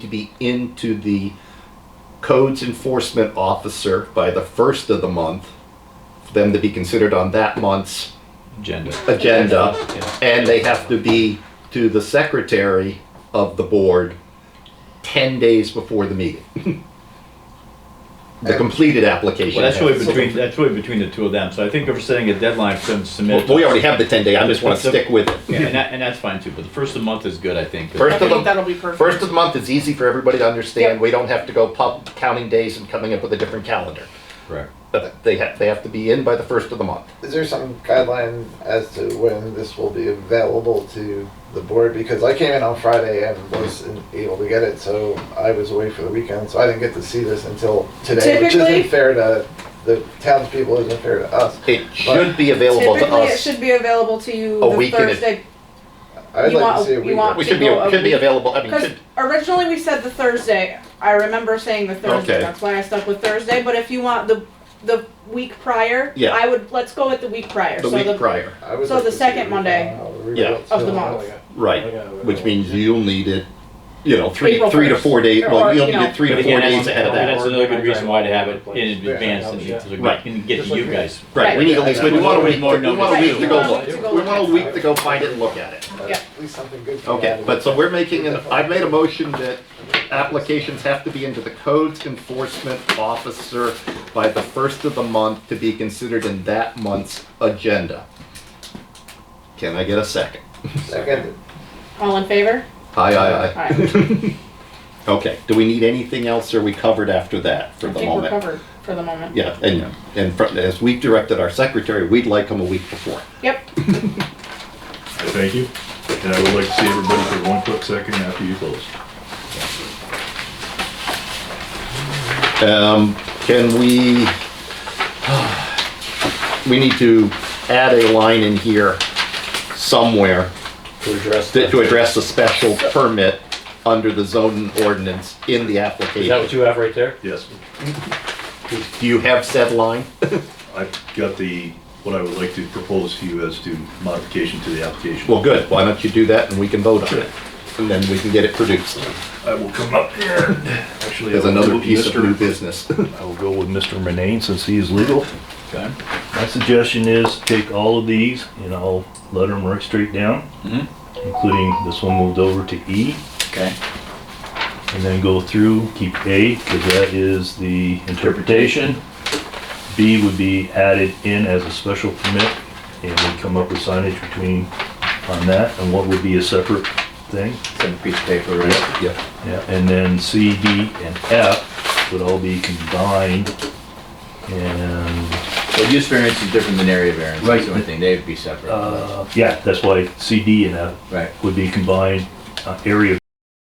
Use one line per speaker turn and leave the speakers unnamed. to be into the codes enforcement officer by the first of the month, for them to be considered on that month's
agenda.
agenda,
Yeah.
and they have to be to the secretary of the board ten days before the meeting. The completed application.
Well, that's really
has-
between, that's really between the two of them, so I think if we're setting a deadline for them to submit.
Well, We already have the ten day, I just wanna
But the-
stick with it.
Yeah, And that, and that's fine too, but the first of the month is good, I think.
First
I
of the-
think that'll be perfect.
First of the month is easy for everybody to understand,
Yep.
we don't have to go pub, counting days and coming up with a different calendar.
Correct.
But They have, they have to be in by the first of the month.
Is there some guideline as to when this will be available to the board? Because I came in on Friday and wasn't able to get it, so I was away for the weekend, so I didn't get to see this until today, which
Typically-
isn't fair to the townspeople, isn't fair to us.
It should be available to
Typically, it
us.
should be available to you
A
the
week in ad-
Thursday,
I'd like
You
to
want-
see a
you
week.
want-
We should be,
People,
should be
um,
available, I mean,
because
should,
originally we said the Thursday, I remember saying the Thursday,
Okay.
that's why I stuck with Thursday, but if you want the, the week prior,
Yeah.
I would, let's go with the week prior,
the
so
week
the,
prior,
I would
so
like
the
to see a
second
week
Monday
on how we
Yeah.
feel.
of the month.
right, which means you'll need it, you know, three,
April
three to
first.
four days,
Or,
well, you'll
you
need
know.
it three
But
to four
again, that's-
days ahead of that.
That's another good reason why to have it in advance, and you- so we
Right.
can get you guys.
Right, we need at least, we want a week,
More
we want a week to go
notice.
look, we want a week to go find it and look at it.
But
Yeah.
At least something good. came out
Okay,
of
but
it.
so we're making, an. I've made a motion that applications have to be into the codes enforcement officer by the first of the month to be considered in that month's agenda. Can I get a second?
Second,
all in favor?
Aye, aye, aye. Okay, do we need anything else, or are we covered after that for
I
the
think we're
moment?
covered for the moment.
Yeah, and, and fr- as we directed our secretary, we'd like him a week before.
Yep,
Thank you. And I would like to see everybody for one quick second after you close.
Um, can we, we need to add a line in here somewhere
to address
to
that.
to address a special permit under the zoning ordinance in the
Is that what
application.
you have right there?
Yes,
Do you have said line?
I've got the, what I would like to propose to you as to modification to the application.
Well, good, why don't you do that and we can vote on it? And then we can get it produced
I will come up here. Actually, I
as
will go
another
with
piece of
Mr.
new business.
I will go with Mr. Renane since he is legal.
Okay.
My suggestion is take all of these and I'll let them work straight down,
Mhm.
including this one moved over to E.
Okay.
and then go through, keep A, because that is the interpretation. B would be added in as a special permit, and we come up with signage between, on that, and what would be a separate thing.
Send a piece of paper, right?
Yeah.
Yeah, and then C, D, and F would all be combined, and,
Well, use variance is different than area variance,
Right. Oh.
that's the only thing, they'd be separate.
uh, yeah, that's why C, D, and F
Right.
would be combined. Uh, Area